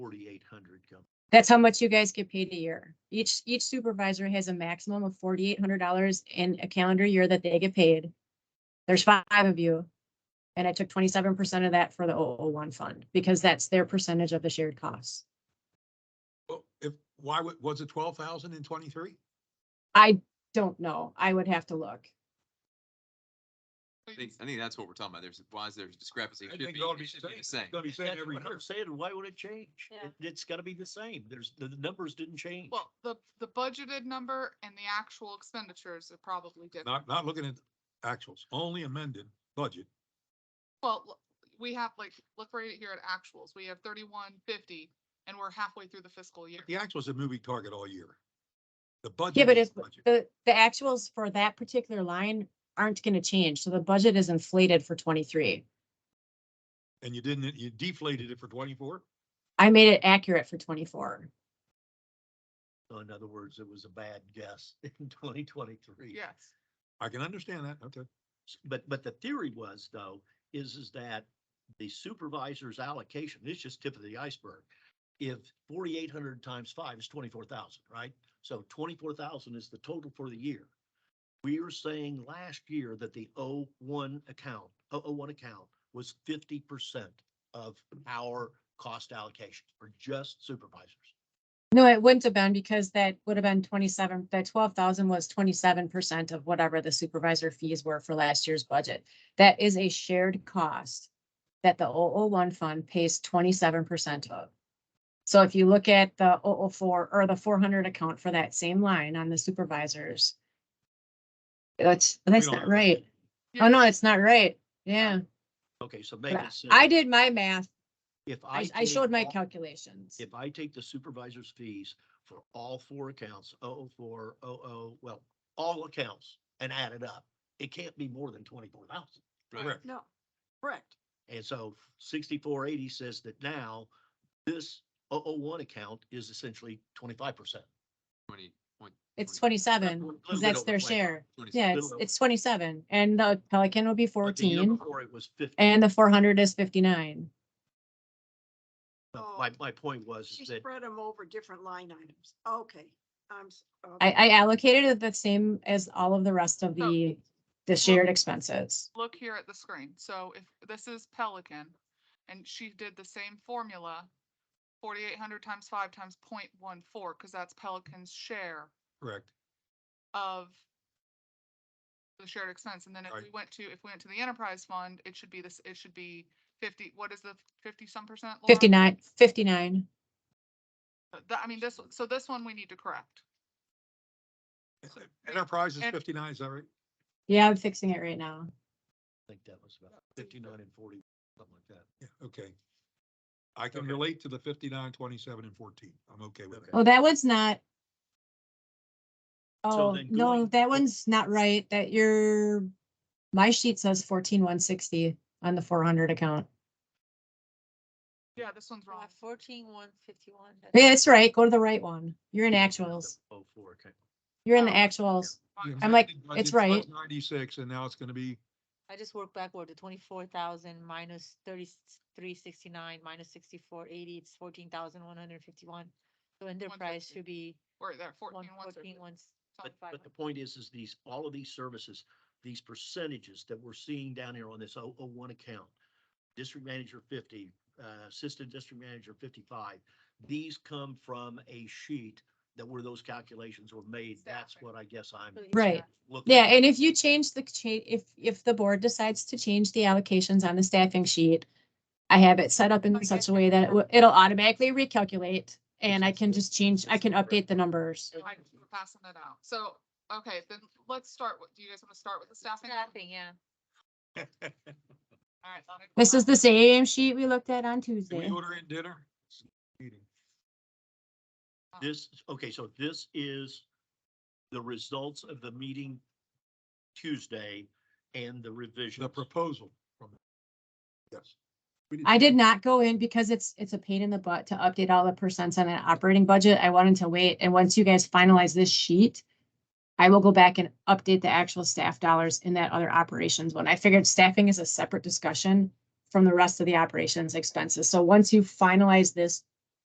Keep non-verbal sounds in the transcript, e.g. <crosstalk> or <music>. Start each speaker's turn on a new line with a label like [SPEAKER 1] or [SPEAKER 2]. [SPEAKER 1] eight hundred come.
[SPEAKER 2] That's how much you guys get paid a year. Each, each supervisor has a maximum of forty-eight hundred dollars in a calendar year that they get paid. There's five of you. And I took twenty-seven percent of that for the 001 fund because that's their percentage of the shared costs.
[SPEAKER 3] Well, if, why, wa- was it twelve thousand in twenty-three?
[SPEAKER 2] I don't know. I would have to look.
[SPEAKER 4] I think, I think that's what we're talking about. There's, why is there a discrepancy? It
[SPEAKER 3] I
[SPEAKER 4] should
[SPEAKER 3] think
[SPEAKER 4] be-
[SPEAKER 3] that'll be
[SPEAKER 4] it should be the
[SPEAKER 3] same.
[SPEAKER 4] same.
[SPEAKER 3] Gotta be saying
[SPEAKER 1] That's
[SPEAKER 3] every
[SPEAKER 1] what
[SPEAKER 3] year.
[SPEAKER 1] I'm saying, why would it change?
[SPEAKER 5] Yeah.
[SPEAKER 1] It- It's gotta be the same. There's, the the numbers didn't change.
[SPEAKER 5] Well, the, the budgeted number and the actual expenditures are probably different.
[SPEAKER 3] Not, not looking at actuals, only amended budget.
[SPEAKER 5] Well, l- we have like, look right here at actuals. We have thirty-one fifty and we're halfway through the fiscal year.
[SPEAKER 3] The actuals a moving target all year. The budget.
[SPEAKER 2] Yeah, but
[SPEAKER 3] is
[SPEAKER 2] it's,
[SPEAKER 3] the budget.
[SPEAKER 2] the, the actuals for that particular line aren't gonna change, so the budget is inflated for twenty-three.
[SPEAKER 3] And you didn't, you deflated it for twenty-four?
[SPEAKER 2] I made it accurate for twenty-four.
[SPEAKER 1] So In other words, it was a bad guess <laughs> in twenty twenty-three.
[SPEAKER 5] Yes.
[SPEAKER 3] I can understand that, okay.
[SPEAKER 1] But, but the theory was though, is, is that the supervisor's allocation, this is just tip of the iceberg. If forty-eight hundred times five is twenty-four thousand, right? So twenty-four thousand is the total for the year. We were saying last year that the O one account, O O one account was fifty percent of our cost allocation for just supervisors.
[SPEAKER 2] No, it wouldn't have been because that would have been twenty-seven, that twelve thousand was twenty-seven percent of whatever the supervisor fees were for last year's budget. That is a shared cost that the 001 fund pays twenty-seven percent of. So if you look at the 004 or the four hundred account for that same line on the supervisors. That's, that's
[SPEAKER 3] don't
[SPEAKER 2] not
[SPEAKER 3] have-
[SPEAKER 2] right.
[SPEAKER 5] You're
[SPEAKER 2] Oh, no,
[SPEAKER 5] right.
[SPEAKER 2] it's not right. Yeah.
[SPEAKER 1] Okay, so make it simple.
[SPEAKER 2] I did my math.
[SPEAKER 1] If
[SPEAKER 2] I, I
[SPEAKER 1] take
[SPEAKER 2] showed my
[SPEAKER 1] all-
[SPEAKER 2] calculations.
[SPEAKER 1] If I take the supervisor's fees for all four accounts, oh, 004, 00, oh, well, all accounts and add it up, it can't be more than twenty-four thousand.
[SPEAKER 4] Right.
[SPEAKER 3] Correct.
[SPEAKER 6] No, correct.
[SPEAKER 1] And so sixty-four eighty says that now this 001 account is essentially twenty-five percent.
[SPEAKER 4] Twenty point-
[SPEAKER 2] It's
[SPEAKER 4] 20.
[SPEAKER 2] twenty-seven,
[SPEAKER 1] Little
[SPEAKER 2] because
[SPEAKER 1] bit
[SPEAKER 2] that's
[SPEAKER 1] over
[SPEAKER 2] their
[SPEAKER 1] 25.
[SPEAKER 2] share.
[SPEAKER 4] 26.
[SPEAKER 2] Yeah,
[SPEAKER 1] Little
[SPEAKER 2] it's,
[SPEAKER 1] over.
[SPEAKER 2] it's twenty-seven and the Pelican will be
[SPEAKER 1] But the year
[SPEAKER 2] fourteen
[SPEAKER 1] Before it was fifty.
[SPEAKER 2] and the four hundred is fifty-nine.
[SPEAKER 1] No, My, my point was
[SPEAKER 6] She
[SPEAKER 1] is that,
[SPEAKER 6] spread them over different line items. Okay, I'm. s-
[SPEAKER 2] I,
[SPEAKER 6] okay.
[SPEAKER 2] I allocated it the same as all of the rest of
[SPEAKER 5] So-
[SPEAKER 2] the, the shared expenses.
[SPEAKER 5] Look here at the screen. So if this is Pelican and she did the same formula, forty-eight hundred times five times point one four, because that's Pelican's share
[SPEAKER 3] Correct.
[SPEAKER 5] of the shared expense, and then if
[SPEAKER 3] Right.
[SPEAKER 5] we went to, if we went to the enterprise fund, it should be this, it should be fifty, what is the fifty some percent? Laura?
[SPEAKER 2] Fifty-nine, fifty-nine.
[SPEAKER 5] Uh, That, I mean, this, so this one we need to correct.
[SPEAKER 3] Enterprise is
[SPEAKER 5] And-
[SPEAKER 3] fifty-nine, is that right?
[SPEAKER 2] Yeah, I'm fixing it right now.
[SPEAKER 1] I think that was about fifty-nine and forty, something like that.
[SPEAKER 3] Yeah, okay. I can relate to the fifty-nine, twenty-seven and fourteen. I'm okay with
[SPEAKER 1] Okay.
[SPEAKER 3] that.
[SPEAKER 2] Oh, that one's not.
[SPEAKER 1] So
[SPEAKER 2] Oh,
[SPEAKER 1] then
[SPEAKER 2] no,
[SPEAKER 1] going-
[SPEAKER 2] that one's not right. That your, my sheet says fourteen one sixty on the four hundred account.
[SPEAKER 5] Yeah, this one's wrong.
[SPEAKER 6] Fourteen, one fifty-one.
[SPEAKER 2] Yeah, that's right. Go to the right one. You're in actuals.
[SPEAKER 1] Oh, four, okay.
[SPEAKER 2] You're in the
[SPEAKER 5] Oh.
[SPEAKER 2] actuals.
[SPEAKER 3] You
[SPEAKER 2] I'm like,
[SPEAKER 3] amended
[SPEAKER 2] it's
[SPEAKER 3] budget was
[SPEAKER 2] right.
[SPEAKER 3] Ninety-six and now it's gonna be, <laughs>
[SPEAKER 7] I just worked backward, the twenty-four thousand minus thirty-three sixty-nine minus sixty-four eighty, it's fourteen thousand one hundred fifty-one. So enterprise
[SPEAKER 5] 150.
[SPEAKER 7] should be
[SPEAKER 5] Or there,
[SPEAKER 7] one
[SPEAKER 5] fourteen, one thirty.
[SPEAKER 7] fourteen, one
[SPEAKER 1] But,
[SPEAKER 7] five.
[SPEAKER 1] but the point is, is these, all of these services, these percentages that we're seeing down here on this 001 account, district manager fifty, uh, assistant district manager fifty-five, these come from a sheet that where those calculations were made. That's
[SPEAKER 5] Staffing.
[SPEAKER 1] what I guess I'm
[SPEAKER 2] Right.
[SPEAKER 1] looking.
[SPEAKER 2] Yeah,
[SPEAKER 1] at.
[SPEAKER 2] and if you change the, cha- if, if the board decides to change the allocations on the staffing sheet, I have it set up in
[SPEAKER 5] Okay.
[SPEAKER 2] such a way that it will- it'll automatically recalculate and I can just change, I can update the numbers.
[SPEAKER 5] I'm passing it out. So, okay, then let's start with, do you guys want to start with the staffing?
[SPEAKER 7] Nothing, yeah.
[SPEAKER 5] All right. I'll make
[SPEAKER 2] This is
[SPEAKER 5] one.
[SPEAKER 2] the same sheet we looked at on
[SPEAKER 3] can we
[SPEAKER 2] Tuesday.
[SPEAKER 3] order in dinner? Meeting.
[SPEAKER 1] This, okay, so this is the results of the meeting Tuesday and the revision.
[SPEAKER 3] The proposal from. Yes. We
[SPEAKER 2] I did not go in because it's, it's a pain in the butt to update all the percents on an operating budget. I wanted to wait. And once you guys finalize this sheet, I will go back and update the actual staff dollars in that other operations one. I figured staffing is a separate discussion from the rest of the operations expenses. So once you finalize this